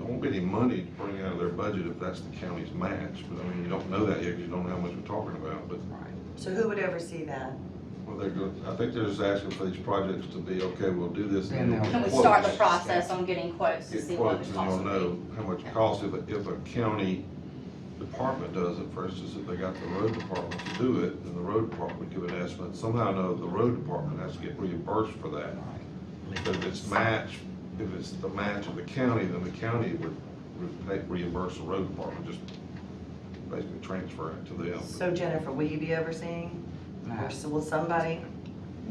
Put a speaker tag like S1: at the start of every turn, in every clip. S1: won't be any money to bring out of their budget if that's the county's match, but I mean, you don't know that yet, 'cause you don't know how much we're talking about, but,
S2: So who would oversee that?
S1: well, they're good, I think they're just asking for these projects to be, okay, we'll do this.
S3: And they'll-
S4: Can we
S1: quotes.
S4: start the process on getting quotes to
S1: Get
S4: see what
S1: quotes,
S4: the
S1: and
S4: cost
S1: you'll
S4: would
S1: know
S4: be?
S1: how much it costs, if, a- if a county department does it, for instance, if they got the road department to do it, then the road department would give an estimate, somehow or another, the road department has to get reimbursed for that. But if it's match, if it's the match of the county, then the county would re- pay- reimburse the road department, just basically transfer it to them.
S2: So Jennifer, will you be overseeing?
S3: No.
S2: Or so will somebody?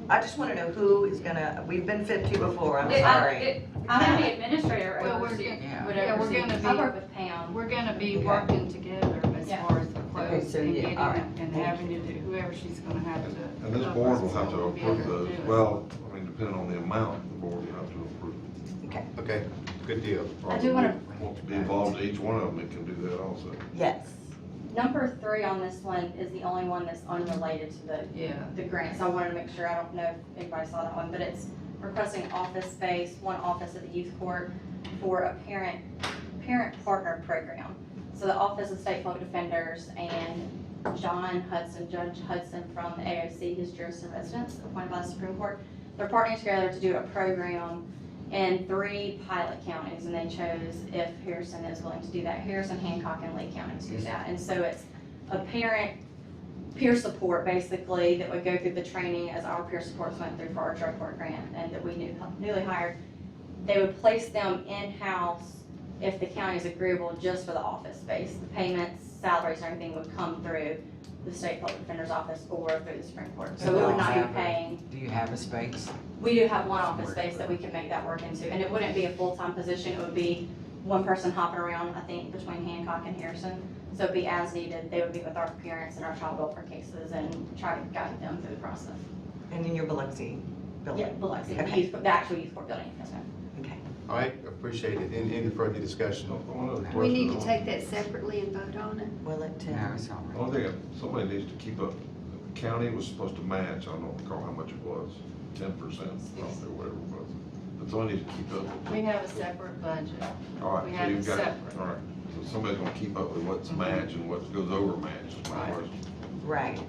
S2: I just want to know who is gonna, we've been fit to before, I'm
S4: It- I-
S2: sorry.
S4: it- I'm the administrator
S5: Well, we're
S4: oversee,
S5: getting-
S3: yeah.
S4: would
S5: Yeah, we're
S4: oversee.
S5: gonna
S4: I
S5: be-
S4: work with Pam.
S5: We're gonna be
S3: Okay.
S5: working together as
S4: Yeah.
S5: far as the
S2: Okay,
S5: quotes
S2: so
S5: and
S2: yeah,
S5: getting
S2: all right.
S5: it and
S2: Thank
S5: having to do, whoever she's gonna have to. uh,
S1: And this board will have to approve those,
S5: Yeah.
S1: well, I mean, depending on the amount, the board will have to approve.
S6: Okay, good deal.
S4: I do wanna-
S1: Want to be involved in each one of them, it can do that also.
S2: Yes.
S4: Number three on this one is the only one that's unrelated to the,
S5: Yeah.
S4: the grants. I wanted to make sure, I don't know if anybody saw that one, but it's requesting office space, one office at the youth court for a parent, parent partner program. So the Office of State Public Defenders and John Hudson, Judge Hudson from the AOC, his jurisdiction residence appointed by the Supreme Court. They're partnering together to do a program in three pilot counties, and they chose if Harrison is willing to do that, Harrison, Hancock, and Lee counties do that. And so it's a parent peer support, basically, that would go through the training as our peer supports went through for our drug court grant, and that we knew, newly hired. They would place them in-house if the county is agreeable just for the office space. The payments, salaries, and everything would come through the state public defender's office or through the Supreme Court. So we would not be paying
S3: Do you have a space?
S4: we do have one office space that we can make that work into, and it wouldn't be a full-time position, it would be one person hopping around, I think, between Hancock and Harrison. So it'd be as needed, they would be with our parents and our child welfare cases and try to guide them through the process.
S2: And in your Biloxi
S4: Yeah,
S2: building?
S4: Biloxi, the
S2: Okay.
S4: youth, the actual youth court building, yes, ma'am.
S2: Okay.
S6: All right, appreciate it. Any, any further discussion?
S1: One other
S7: We need to
S1: question.
S7: take that separately and vote on it.
S2: Will it,
S3: No,
S2: uh,
S3: it's all right.
S1: Only thing, somebody needs to keep up, the county was supposed to match, I don't recall how much it was, ten percent, I don't know, whatever it was. But somebody needs to keep up. with
S5: We
S1: it.
S5: have a separate budget.
S1: All right,
S5: we
S1: so
S5: have
S1: you've
S5: it
S1: got-
S5: separate.
S1: All right, so somebody's gonna keep up with what's match and what goes over match, is my
S5: Right.
S1: question.
S2: right.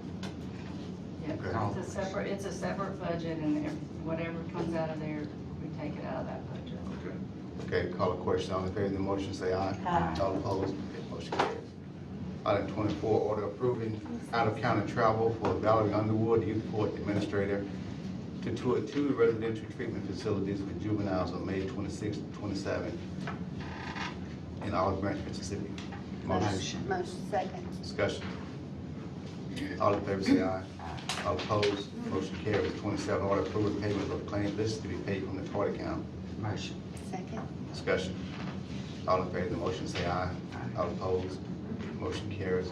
S5: Yeah,
S3: Okay.
S5: It's a separate, it's a separate budget and if- whatever comes out of there, we take it out of that budget.
S1: Okay.
S6: Okay, call a question. All in favor of the motion, say aye.
S2: Aye.
S6: All opposed, motion carries. Item twenty-four, order approving out-of-county travel for Valerie Underwood, youth court administrator, to tour two residential treatment facilities for juveniles on May twenty-sixth, twenty-seventh in Olive Branch, Mississippi. Motion,
S7: Motion second.
S6: discussion. All in favor, say aye. All opposed, motion carries. Twenty-seven, order approving payment of claim listed to be paid from the court account.
S3: Motion.
S7: Second.
S6: Discussion. All in favor of the motion, say aye. All opposed, motion carries.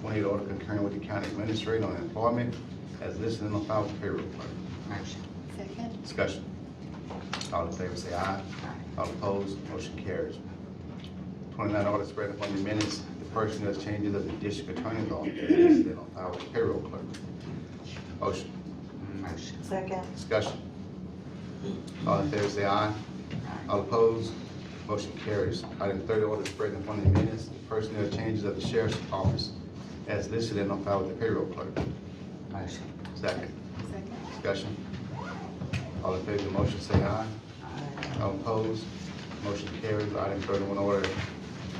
S6: Twenty-eight, order concurring with the county administrator on employment as listed in the file with payroll clerk.
S3: Motion.
S7: Second.
S6: Discussion. All in favor, say aye. All opposed, motion carries. Twenty-nine, order spread upon the minutes, the personnel changes of the district attorney's office as listed on file with payroll clerk. Motion.
S3: Motion.
S2: Second,
S6: Discussion. All in favor, say aye. All opposed, motion carries. Item thirty, order spreading upon the minutes, the personnel changes of the sheriff's office as listed and on file with the payroll clerk.
S3: Motion.
S6: Second,
S7: Second.
S6: discussion. All in favor of the motion, say aye. All opposed, motion carries. Item thirty-one, order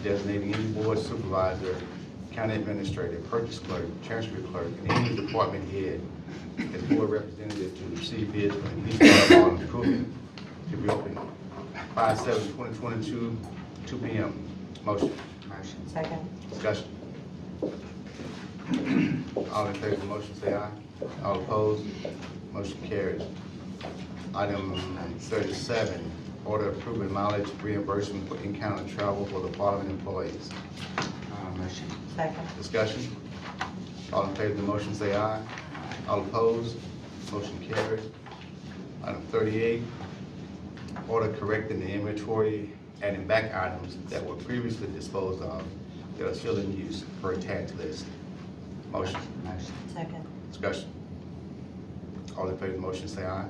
S6: designating any board supervisor, county administrator, purchase clerk, transfer clerk, and any department head as board representative to receive bids for the police department on improvement to be open five seven twenty twenty-two, two P M. Motion,
S3: Motion.
S2: second,
S6: discussion. All in favor of the motion, say aye. All opposed, motion carries. Item thirty-seven, order approving mileage reimbursement for in-county travel for the following employees.
S3: Uh, motion.
S2: second,
S6: Discussion? All in favor of the motion, say aye. All opposed, motion carries. Item thirty-eight, order correcting the inventory, adding back items that were previously disposed of that are still in use per tax list. Motion,
S3: Motion.
S2: second,
S6: discussion? All in favor of the motion, say aye.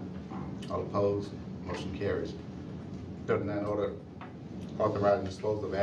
S6: All opposed, motion carries. Thirty-nine, order authorizing disposal of